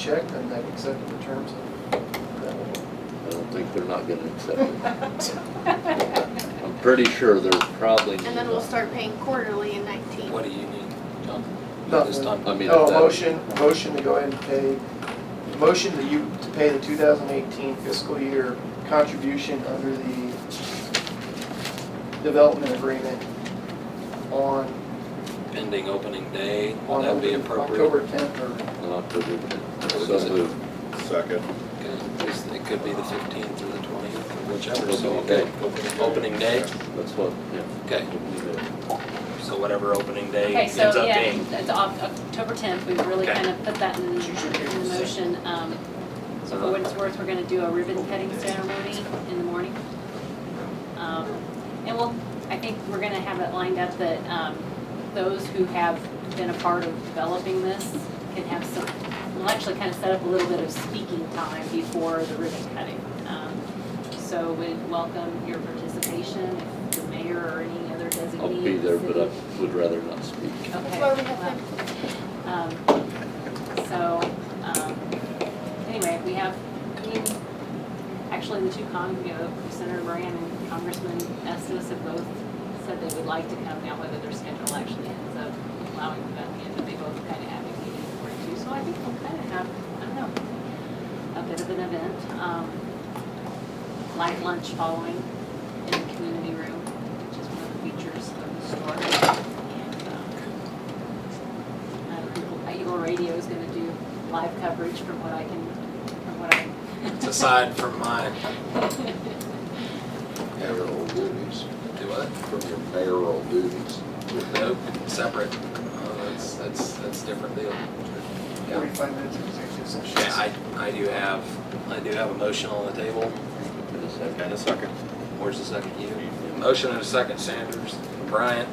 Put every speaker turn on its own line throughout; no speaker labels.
check, then they accepted the terms of that one.
I don't think they're not gonna accept it. I'm pretty sure they're probably.
And then we'll start paying quarterly in nineteen.
What do you need, John? At this
Nothing.
time?
I mean,
Oh,
No,
if that-
Oh, motion, motion to go ahead and pay, motion that you, to pay the 2018 fiscal year contribution under the development agreement on,
Pending opening day, would
on
that be appropriate?
October 10th
in October 10th.
Is
So
it-
moved.
Second.
Okay, it's- It could be the fifteenth or the twentieth, or whichever, so,
Opening
okay.
day.
Opening day,
That's what, yeah.
okay, so whatever opening day
Okay,
ends
so
up being.
yeah, it's Oc- October tenth, we've really
Okay.
kind of put that in, in the motion. Um, So for what it's worth, we're gonna do a ribbon cutting ceremony in the morning. Um, And we'll, I think we're gonna have it lined up that, um, those who have been a part of developing this can have some, we'll actually kind of set up a little bit of speaking time before the ribbon cutting. Um, So we'd welcome your participation, if the mayor or any other designee.
I'll be there, but
city-
I would rather not speak.
Okay.
That's why we have them.
Um, So, um, anyway, we have, I mean, actually, the two con, you know, Senator Moran and Congressman Estes have both said they would like to come now, whether their schedule actually ends up allowing them at the end, but they both kind of advocated for it too. So I think we'll kind of have, I don't know, a bit of an event, um, light lunch following in the community room, which is one of the features of the store. And, um, uh, Eagle Radio is gonna do live coverage from what I can, from what I.
Aside from my,
Mayoral duties,
do what?
from your mayoral duties.
Nope, separate. Uh, That's, that's, that's different deal.
or
Yeah,
45 minutes of executive session.
Yeah, I, I do have, I do have a motion on the table.
In a second.
And a second. Where's the second? You. Motion and a second, Sanders and Bryant,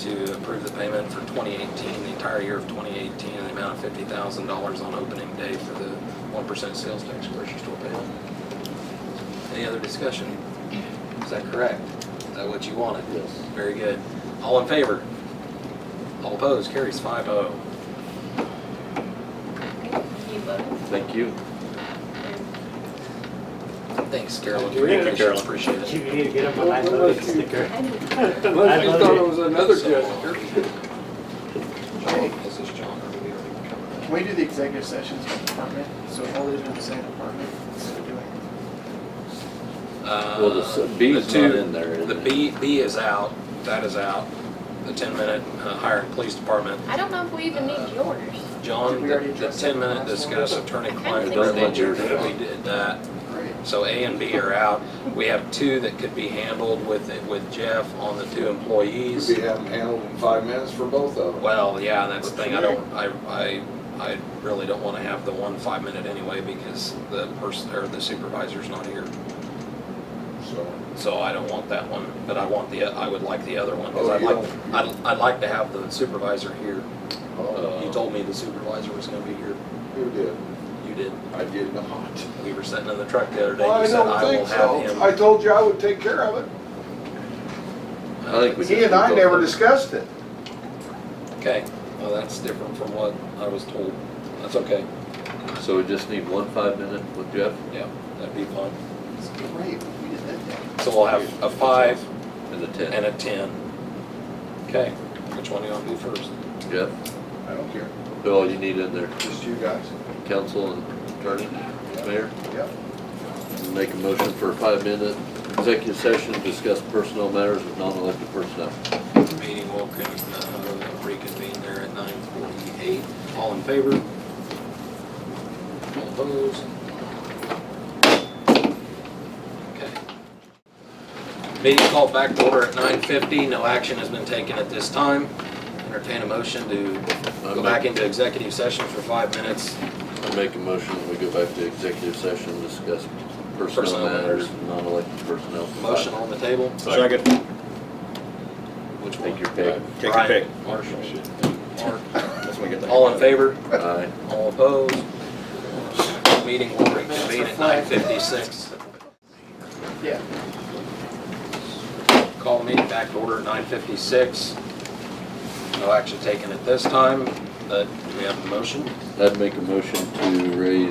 to approve the payment for 2018, the entire year of 2018, in the amount of $50,000 on opening day for the 1% sales tax grocery store payment. Any other discussion? Is that correct? Is that what you wanted?
Yes.
Very good. All in favor? All opposed? Carries oh. 5-0.
You voted.
Thank you.
Thanks, Carolyn.
Thank you.
Appreciate
Carolyn.
it. Appreciate
You
it.
need to get up on that loading sticker.
I
you thought it
was another
Okay,
This is John. Are we already covered that?
Can we do the executive sessions by department? So all these are in the same department instead of doing
Uh,
Well, the s- B's
the two-
not in there, is
The
it?
B, B is out, that is out, the ten minute uh, hire and police department.
I don't know if we even need yours.
Did
John,
we
the
already
the
address
ten
that
minute
last one?
discuss attorney client
I don't
think so.
privilege, we did that.
Great.
So A and B are out. We have two that could be handled with, with Jeff on the two
You'd
employees.
be having handled in five minutes for both of them.
Well, yeah, that's the thing, I don't, I, I, I really don't wanna have the one five minute anyway because the person, or the supervisor's not here.
So,
So I don't want that one, but I want the, I would like the other one, because
Oh,
I'd
you
like, I'd, I'd like to have the supervisor here. Uh,
oh,
You told me the supervisor was gonna be here.
who did?
You did.
I did not.
We were sitting in the truck the other day,
Well,
you
I
said I
don't
will
think
have
so. I
him.
told you I would take care of it.
I think we
He and I never discussed it.
Okay, well, that's different from what I was told. That's okay,
So we just need one five minute with Jeff
yeah, that'd be fine.
It's great, we did that day.
So we'll have a five
and the ten.
and a ten. Okay, which one do you want to do first?
Jeff,
I don't care,
who all you need in there?
just you guys.
Council and attorney, mayor?
Yep.
Make a motion for a five minute executive session, discuss personnel matters with non-elected personnel.
Meeting will con- uh, reconvene there at nine forty-eight. All in favor? All opposed? Okay. Meeting called back to order at nine fifty. No action has been taken at this time. Entertain a motion to go back into executive session for five minutes.
I make a motion that we go back to executive session, discuss
Personnel
personnel
matters.
matters, non-elected personnel.
Motion on the table.
Second.
Which one?
Take your pick.
Take your
Brian,
pick.
Marshall. Mark.
That's when we get the-
All in favor?
Aye.
All opposed? Meeting will reconvene at nine fifty-six.
Yeah.
Call meeting back to order at nine fifty-six. No action taken at this time, but we have a motion.
I'd make a motion to raise